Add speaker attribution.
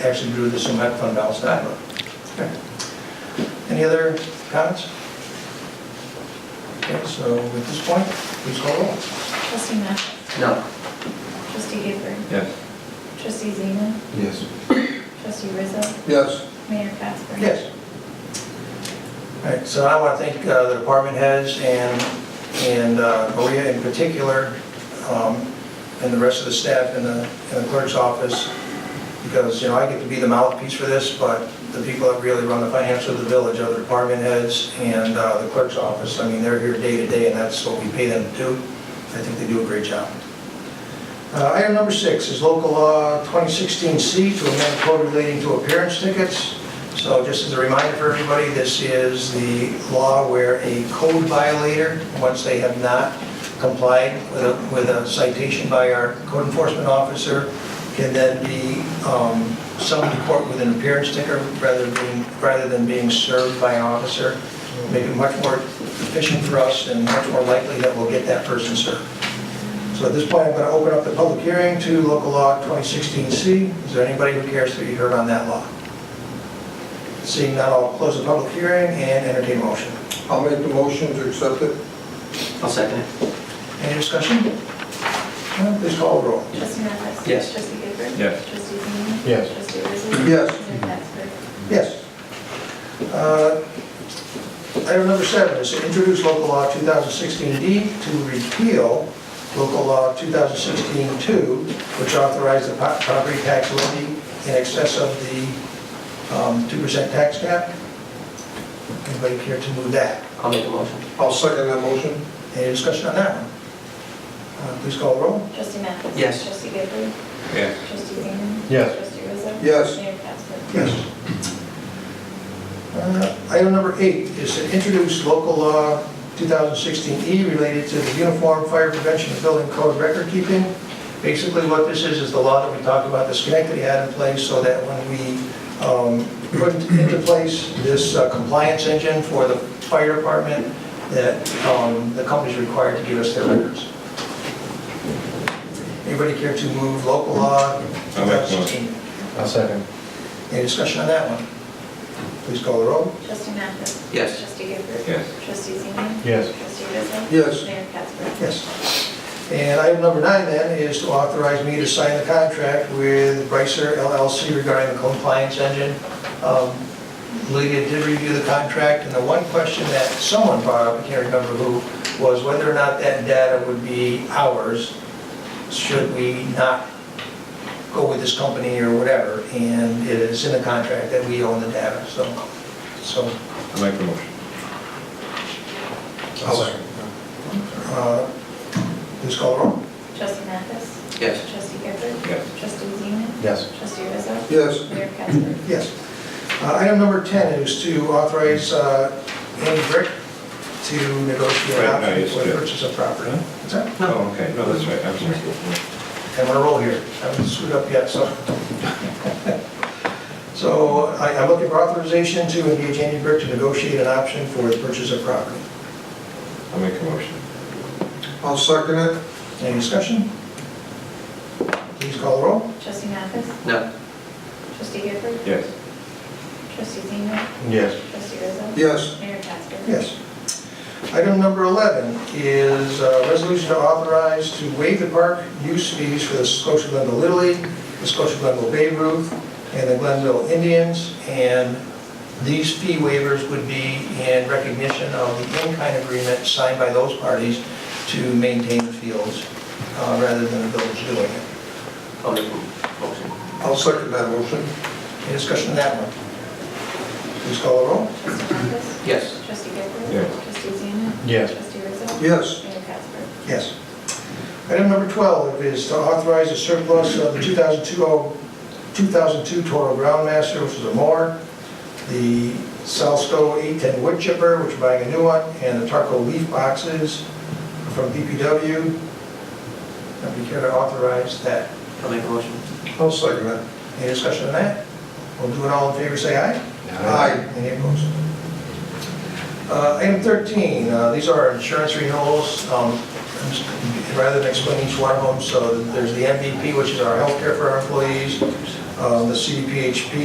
Speaker 1: actually do this in that fund balance diagram. Okay. Any other comments? Okay, so at this point, please call roll.
Speaker 2: Trustee Mathis?
Speaker 3: No.
Speaker 2: Trustee Gifford?
Speaker 3: Yes.
Speaker 2: Trustee Zeman?
Speaker 3: Yes.
Speaker 2: Trustee Rizzo?
Speaker 3: Yes.
Speaker 2: Mayor Casper?
Speaker 1: Yes. All right, so I want to thank uh, the department heads and, and uh, Maria in particular, um, and the rest of the staff in the, in the clerk's office, because, you know, I get to be the mouthpiece for this, but the people that really run the finance of the village are the department heads and uh, the clerk's office. I mean, they're here day to day, and that's what we pay them to do. I think they do a great job. Uh, Item number six is local law 2016C to amend code relating to appearance tickets. So just as a reminder for everybody, this is the law where a code violator, once they have not complied with a- with a citation by our code enforcement officer, can then be um, summoned to court with an appearance ticker rather than being, rather than being served by an officer. Make it much more efficient for us and much more likely that we'll get that person served. So at this point, I'm going to open up the public hearing to local law 2016C. Is there anybody who cares to be heard on that law? Seeing none, I'll close the public hearing and entertain a motion.
Speaker 3: I'll make the motion to accept it. I'll second it.
Speaker 1: Any discussion? No? Please call the roll.
Speaker 2: Trustee Mathis?
Speaker 3: Yes.
Speaker 2: Trustee Gifford?
Speaker 4: Yes.
Speaker 2: Trustee Zeman?
Speaker 3: Yes.
Speaker 2: Trustee Rizzo?
Speaker 3: Yes.
Speaker 2: Mayor Casper?
Speaker 1: Yes. Uh, Item number seven is to introduce local law 2016D to repeal local law 2016-2, which authorized the po- property tax levy in excess of the um, 2% tax cap. Anybody care to move that?
Speaker 3: I'll make the motion.
Speaker 5: I'll second that motion.
Speaker 1: Any discussion on that one? Uh, Please call the roll.
Speaker 2: Trustee Mathis?
Speaker 3: Yes.
Speaker 2: Trustee Gifford?
Speaker 4: Yes.
Speaker 2: Trustee Zeman?
Speaker 5: Yes.
Speaker 2: Trustee Rizzo?
Speaker 5: Yes.
Speaker 2: Mayor Casper?
Speaker 1: Yes. Uh, Item number eight is to introduce local law 2016E E related to the Uniform Fire Prevention and Building Code Record Keeping. Basically, what this is, is the law that we talked about that Schenectady had in place so that when we um, put into place this uh, compliance engine for the fire department, that um, the company's required to give us their records. Anybody care to move local law
Speaker 4: I'll make the motion.
Speaker 1: 2016?
Speaker 5: I'll second.
Speaker 1: Any discussion on that one? Please call the roll.
Speaker 2: Trustee Mathis?
Speaker 3: Yes.
Speaker 2: Trustee Gifford?
Speaker 4: Yes.
Speaker 2: Trustee Zeman?
Speaker 5: Yes.
Speaker 2: Trustee Rizzo?
Speaker 5: Yes.
Speaker 2: Mayor Casper?
Speaker 1: Yes. And item number nine then is to authorize me to sign the contract with Bricer LLC regarding the compliance engine. Um, Lydia did review the contract, and the one question that someone brought up, I can't remember who, was whether or not that data would be ours, should we not go with this company or whatever, and it is in the contract that we own the data, so, so
Speaker 4: I'll make the motion.
Speaker 5: I'll second.
Speaker 1: Uh, Please call the roll.
Speaker 2: Trustee Mathis?
Speaker 3: Yes.
Speaker 2: Trustee Gifford?
Speaker 4: Yes.
Speaker 2: Trustee Zeman?
Speaker 5: Yes.
Speaker 2: Trustee Rizzo?
Speaker 5: Yes.
Speaker 2: Mayor Casper?
Speaker 1: Yes. Uh, Item number 10 is to authorize uh, Andy Brick to negotiate
Speaker 4: Right,
Speaker 1: an
Speaker 4: no,
Speaker 1: option
Speaker 4: yes,
Speaker 1: for the
Speaker 4: yeah.
Speaker 1: purchase of property.
Speaker 4: Huh?
Speaker 1: What's that?
Speaker 4: Oh, okay, no, that's right, I'm sorry.
Speaker 1: I'm on a roll here. I haven't screwed up yet, so. So I- I'm looking for authorization to engage Andy Brick to negotiate an option for the purchase of property.
Speaker 4: I'll make the motion.
Speaker 5: I'll second it.
Speaker 1: Any discussion? Please call the roll.
Speaker 2: Trustee Mathis?
Speaker 3: No.
Speaker 2: Trustee Gifford?
Speaker 4: Yes.
Speaker 2: Trustee Zeman?
Speaker 5: Yes.
Speaker 2: Trustee Rizzo?
Speaker 5: Yes.
Speaker 2: Mayor Casper?
Speaker 1: Yes. Item number 11 is a resolution to authorize to waive the park use fees for the Scotia Glenville Little League, the Scotia Glenville Babe Ruth, and the Glenville Indians. And these fee waivers would be in recognition of the in-kind agreement signed by those parties to maintain the fields uh, rather than the village doing it.
Speaker 3: I'll make the motion.
Speaker 5: I'll second that motion.
Speaker 1: Any discussion on that one? Please call the roll.
Speaker 2: Trustee Mathis?
Speaker 3: Yes.
Speaker 2: Trustee Gifford?
Speaker 4: Yes.
Speaker 2: Trustee Zeman?
Speaker 5: Yes.
Speaker 2: Trustee Rizzo?
Speaker 5: Yes.
Speaker 2: Mayor Casper?
Speaker 1: Yes. Item number 12 is to authorize the surplus of the 2002 2002 Toro Groundmaster, which is a mower, the Salsco 810 wood chipper, which we're buying a new one, and the Tarco leaf boxes from DPW. If you care to authorize that.
Speaker 3: I'll make the motion.
Speaker 5: I'll second it.
Speaker 1: Any discussion on that? We'll do it all in favor, say aye.
Speaker 5: Aye.
Speaker 1: Any opposed? Uh, Item 13, uh, these are insurance renewals. Um, I'm just- Rather than explain each one of them, so there's the MVP, which is our healthcare for our employees, um, the CDPHP